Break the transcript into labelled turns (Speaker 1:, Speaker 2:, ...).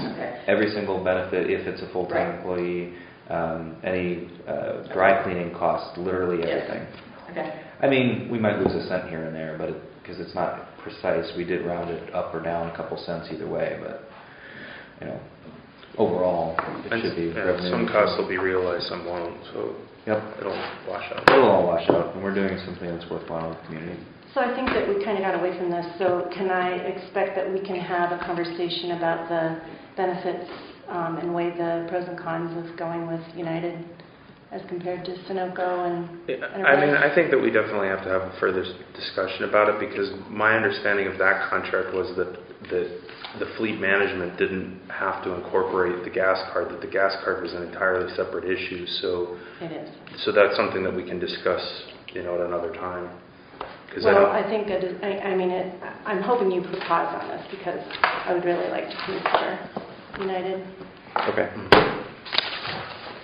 Speaker 1: every single benefit if it's a
Speaker 2: Right.
Speaker 1: full-time employee, um, any uh, dry cleaning costs, literally
Speaker 2: Yes.
Speaker 1: everything.
Speaker 2: Okay,
Speaker 1: I mean, we might lose a cent here and there, but, because it's not precise, we did round it up or down a couple cents either way, but, you know, overall, it
Speaker 3: And-
Speaker 1: should be
Speaker 3: yeah,
Speaker 1: revenue.
Speaker 3: Some
Speaker 1: neutral.
Speaker 3: costs will be realized, some won't, so
Speaker 1: Yep,
Speaker 3: it'll wash out.
Speaker 1: it'll all wash out, and we're doing something that's worthwhile in the community.
Speaker 4: So I think that we kind of got away from this, so can I expect that we can have a conversation about the benefits um, and weigh the pros and cons of going with United as compared to Sunoco and,
Speaker 3: Yeah,
Speaker 4: And
Speaker 3: I mean,
Speaker 4: about-
Speaker 3: I think that we definitely have to have a further s- discussion about it because my understanding of that contract was that, that the fleet management didn't have to incorporate the gas card, that the gas card was an entirely separate issue. So,
Speaker 4: it is.
Speaker 3: so that's something that we can discuss, you know, at another time. 'Cause I
Speaker 4: Well,
Speaker 3: don't-
Speaker 4: I think that, is- I I mean, it- I'm hoping you put pause on this because I would really like to consider United.
Speaker 1: Okay.
Speaker 3: Mhm.